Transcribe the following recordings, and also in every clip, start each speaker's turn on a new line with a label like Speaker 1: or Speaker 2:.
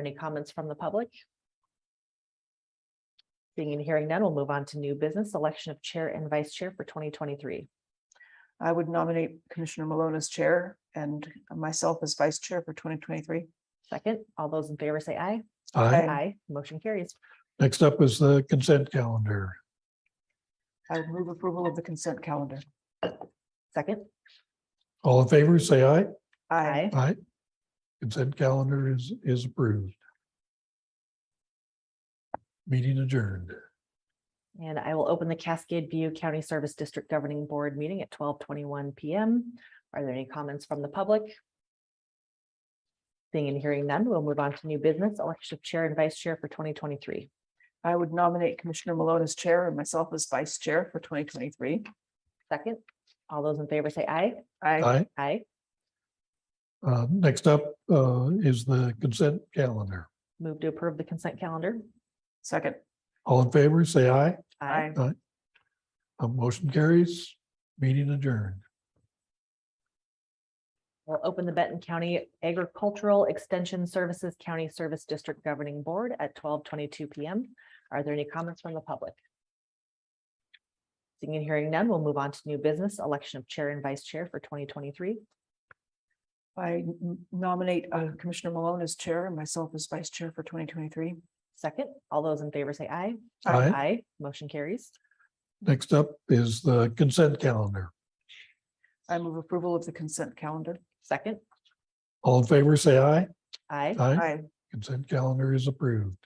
Speaker 1: Any comments from the public? Seeing and hearing none, we'll move on to new business, election of chair and vice chair for twenty twenty-three.
Speaker 2: I would nominate Commissioner Malone as chair and myself as vice chair for twenty twenty-three.
Speaker 1: Second, all those in favor say aye.
Speaker 2: Aye.
Speaker 3: Aye.
Speaker 1: Motion carries.
Speaker 3: Next up is the consent calendar.
Speaker 2: I would move approval of the consent calendar.
Speaker 1: Second,
Speaker 3: All in favor, say aye.
Speaker 2: I
Speaker 1: aye.
Speaker 3: Aye. Consent calendar is, is approved. Meeting adjourned.
Speaker 1: And I will open the Cascade View County Service District Governing Board meeting at twelve twenty-one PM. Are there any comments from the public? Seeing and hearing none, we'll move on to new business, election of chair and vice chair for twenty twenty-three.
Speaker 2: I would nominate Commissioner Malone as chair and myself as vice chair for twenty twenty-three.
Speaker 1: Second, all those in favor say aye.
Speaker 2: I
Speaker 3: Aye.
Speaker 1: Aye.
Speaker 3: Uh, next up, uh, is the consent calendar.
Speaker 1: Move to approve the consent calendar.
Speaker 2: second.
Speaker 3: All in favor, say aye. Uh, motion carries. Meeting adjourned.
Speaker 1: We'll open the Benton County Agricultural Extension Services County Service District Governing Board at twelve twenty-two PM. Are there any comments from the public? Seeing and hearing none, we'll move on to new business, election of chair and vice chair for twenty twenty-three.
Speaker 2: I n- nominate uh, Commissioner Malone as chair and myself as vice chair for twenty twenty-three.
Speaker 1: Second, all those in favor say aye.
Speaker 3: Aye.
Speaker 1: Aye, motion carries.
Speaker 3: Next up is the consent calendar.
Speaker 2: I move approval of the consent calendar.
Speaker 1: Second,
Speaker 3: All in favor, say aye.
Speaker 1: aye.
Speaker 3: Aye.
Speaker 2: I
Speaker 3: Consent calendar is approved.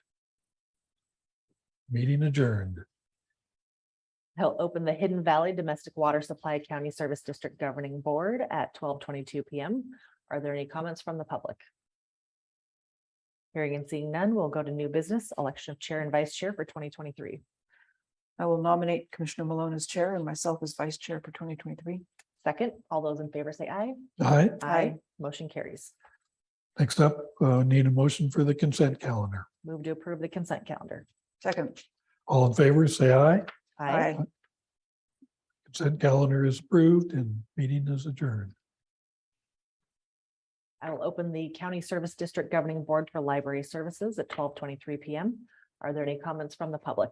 Speaker 3: Meeting adjourned.
Speaker 1: He'll open the Hidden Valley Domestic Water Supply County Service District Governing Board at twelve twenty-two PM. Are there any comments from the public? Hearing and seeing none, we'll go to new business, election of chair and vice chair for twenty twenty-three.
Speaker 2: I will nominate Commissioner Malone as chair and myself as vice chair for twenty twenty-three.
Speaker 1: Second, all those in favor say aye.
Speaker 3: Aye.
Speaker 2: Aye.
Speaker 1: Motion carries.
Speaker 3: Next up, uh, need a motion for the consent calendar.
Speaker 1: Move to approve the consent calendar.
Speaker 2: Second.
Speaker 3: All in favor, say aye.
Speaker 2: I
Speaker 3: Consent calendar is approved and meeting is adjourned.
Speaker 1: I will open the County Service District Governing Board for Library Services at twelve twenty-three PM. Are there any comments from the public?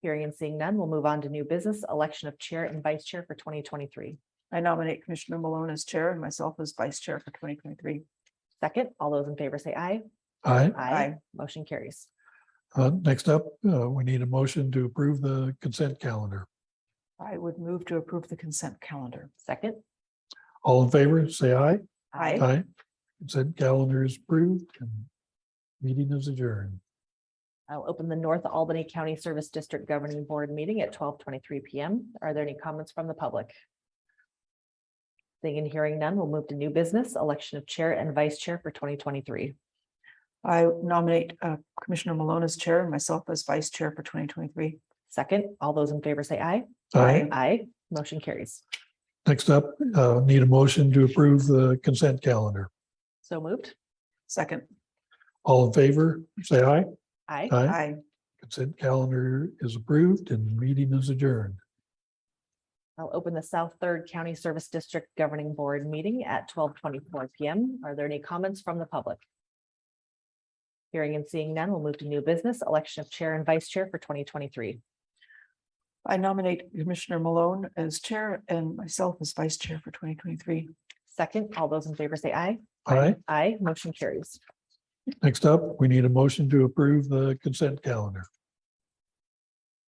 Speaker 1: Hearing and seeing none, we'll move on to new business, election of chair and vice chair for twenty twenty-three.
Speaker 2: I nominate Commissioner Malone as chair and myself as vice chair for twenty twenty-three.
Speaker 1: Second, all those in favor say aye.
Speaker 3: Aye.
Speaker 2: Aye.
Speaker 1: Motion carries.
Speaker 3: Uh, next up, uh, we need a motion to approve the consent calendar.
Speaker 2: I would move to approve the consent calendar.
Speaker 1: Second.
Speaker 3: All in favor, say aye.
Speaker 2: Aye.
Speaker 3: Aye. Consent calendar is approved and meeting is adjourned.
Speaker 1: I'll open the North Albany County Service District Governing Board meeting at twelve twenty-three PM. Are there any comments from the public? Seeing and hearing none, we'll move to new business, election of chair and vice chair for twenty twenty-three.
Speaker 2: I nominate uh, Commissioner Malone as chair and myself as vice chair for twenty twenty-three.
Speaker 1: Second, all those in favor say aye.
Speaker 2: Aye.
Speaker 1: Aye. Motion carries.
Speaker 3: Next up, uh, need a motion to approve the consent calendar.
Speaker 1: So moved.
Speaker 2: Second,
Speaker 3: All in favor, say aye.
Speaker 1: Aye.
Speaker 3: Aye.
Speaker 2: I
Speaker 3: Consent calendar is approved and meeting is adjourned.
Speaker 1: I'll open the South Third County Service District Governing Board meeting at twelve twenty-four PM. Are there any comments from the public? Hearing and seeing none, we'll move to new business, election of chair and vice chair for twenty twenty-three.
Speaker 2: I nominate Commissioner Malone as chair and myself as vice chair for twenty twenty-three.
Speaker 1: Second, all those in favor say aye.
Speaker 3: Aye.
Speaker 1: Aye, motion carries.
Speaker 3: Next up, we need a motion to approve the consent calendar.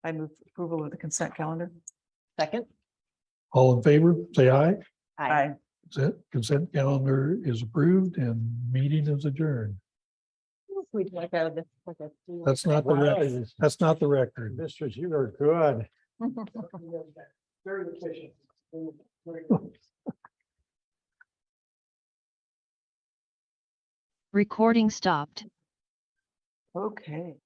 Speaker 2: I move approval of the consent calendar.
Speaker 1: Second.
Speaker 3: All in favor, say aye. Consent, consent calendar is approved and meeting is adjourned.
Speaker 1: We'd like to have this- like a-
Speaker 3: That's not the, rec-
Speaker 4: Wow,
Speaker 3: that's not the record.
Speaker 4: Mistress, you are good.
Speaker 2: Very efficient.
Speaker 5: Recording stopped.
Speaker 2: Okay.